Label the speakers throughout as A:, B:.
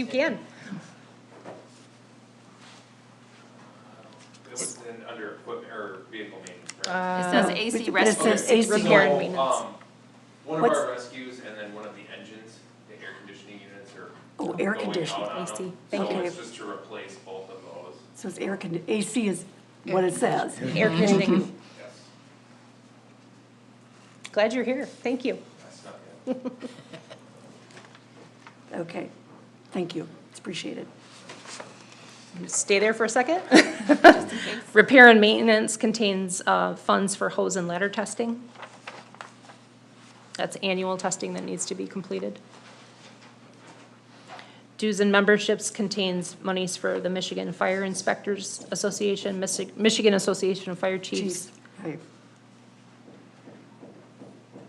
A: You can.
B: This is in under equipment or vehicle maintenance, right?
C: It
A: Uh,
C: says AC
D: but it
C: rescue.
D: says AC.
A: repair and
B: So,
A: maintenance.
B: um, One of
D: What's-
B: our rescues and then one of the engines, the air conditioning units are
D: Oh, air
B: going out
D: conditioning,
B: on
A: AC.
B: them.
D: Thank
B: So
D: you.
B: it's just to replace both of those,
D: So it's air condi, AC is what it says.
A: Air conditioning.
B: yes,
A: Glad you're here. Thank you.
B: that's not it.
D: Okay, thank you, it's appreciated.
A: Stay there for a second. Repair and maintenance contains uh, funds for hose and ladder testing. That's annual testing that needs to be completed. Dues and memberships contains monies for the Michigan Fire Inspectors Association, Michi- Michigan Association of Fire Chiefs,
D: Chiefs, right,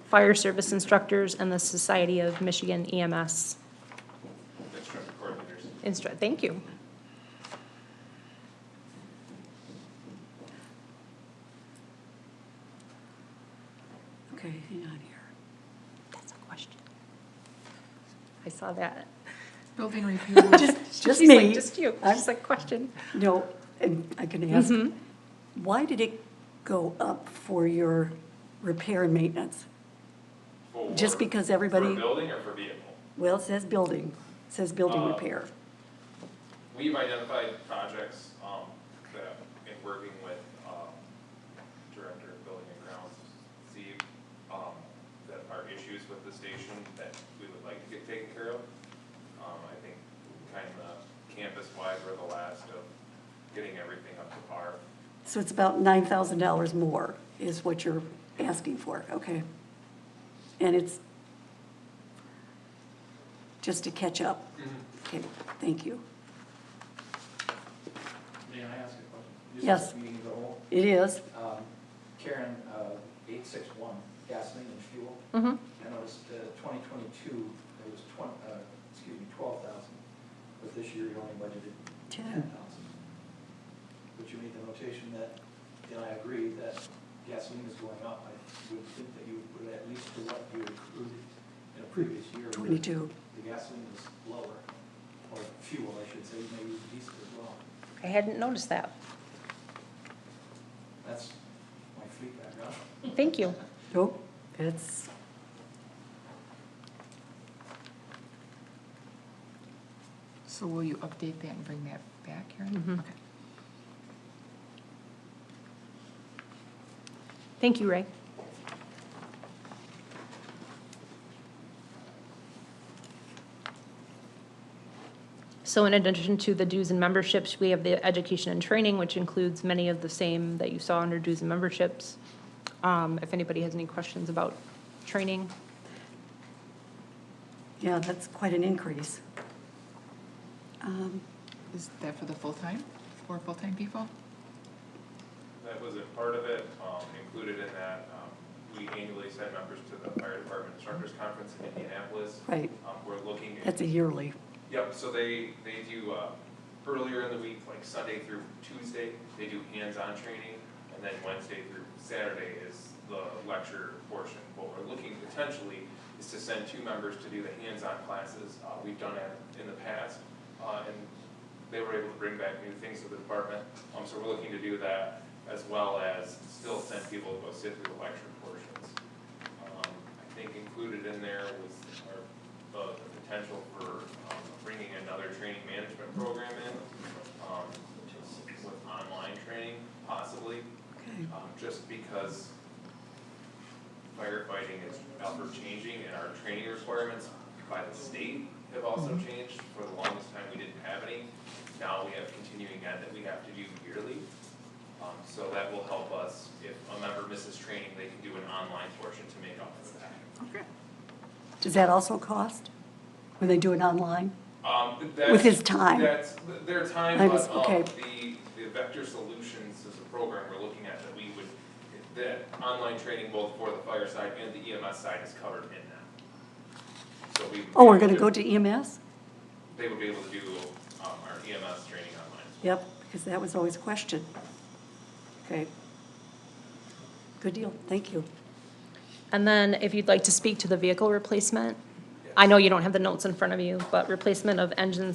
A: Fire Service Instructors, and the Society of Michigan E EMS.
B: That's from the coordinators.
A: Instru, thank you.
D: okay, hang on here.
A: That's a question. I saw that.
E: Building repair,
D: Just, just
A: She's like,
D: me,
A: Just you.
D: I'm-
A: She's like, question. Mm-hmm.
D: no, and I can ask, why did it go up for your repair and maintenance?
B: For-
D: Just because everybody-
B: For building or for vehicle?
D: Well, it says building, It says building
B: Uh,
D: repair.
B: We've identified projects, um, that, in working with, um, Director of Building and Grounds, Steve, um, that are issues with the station that we would like to get taken care of. Um, I think kind of campus-wide, we're the last of getting everything up to par.
D: So it's about nine thousand dollars more is what you're asking for, okay? And it's just to catch up? Okay, thank you.
F: May I ask a question?
D: Yes.
F: This is a meeting of the whole.
D: It is,
F: Um, Karen, uh, eight six one, gasoline and fuel.
A: Mm-hmm.
F: I noticed uh, twenty twenty-two, it was twen, uh, excuse me, twelve thousand, but this year you only budgeted
D: Ten.
F: ten thousand. But you made the notation that, and I agree, that gasoline is going up. I would think that you would put at least to what you accrued in a previous year. where
D: twenty-two.
F: The gasoline is lower, or fuel, I should say, maybe diesel as well.
A: I hadn't noticed that.
F: That's my fleet background.
A: Thank you.
D: Nope, it's.
E: so will you update that and bring that back,
A: Mhm.
E: Karen? Okay.
A: Thank you, Ray. So in addition to the dues and memberships, we have the education and training, which includes many of the same that you saw under dues and memberships. Um, If anybody has any questions about training,
D: Yeah, that's quite an increase. Um,
E: Is that for the full-time, for full-time people?
B: That was a part of it, um, included in that, um, we annually send members to the Fire Department Instructors Conference in Indianapolis.
D: Right,
B: Um, we're looking at.
D: that's a yearly.
B: Yep, so they, they do, uh, earlier in the week, like Sunday through Tuesday, they do hands-on training, and then Wednesday through Saturday is the lecture portion. What we're looking potentially is to send two members to do the hands-on classes, uh, we've done it in the past, uh, and they were able to bring back new things to the department, um, so we're looking to do that, as well as still send people to go sit through the lecture portions. Um, I think included in there was our, the the potential for um, bringing another training management program in, um, with online training possibly,
D: Okay.
B: um, just because firefighting is ever-changing and our training requirements by the state have also changed. For the longest time, we didn't have any. Now we have continuing ed that we have to do yearly. Um, so that will help us, if a member misses training, they can do an online portion to make up for that.
D: Does that also cost when they do it online?
B: Um, th- that's-
D: With his time.
B: That's, th- their time,
D: I
B: but,
D: was- okay.
B: um, the, the Vector Solutions is a program we're looking at that we would, that online training both for the fire side and the EMS side is covered in that. So we.
D: Oh, we're gonna go to EMS?
B: They would be able to do, um, our EMS training online as well.
D: Yep, because that was always a question. Okay. Good deal, thank you.
A: And then if you'd like to speak to the vehicle replacement, I know you don't have the notes in front of you, but replacement of engines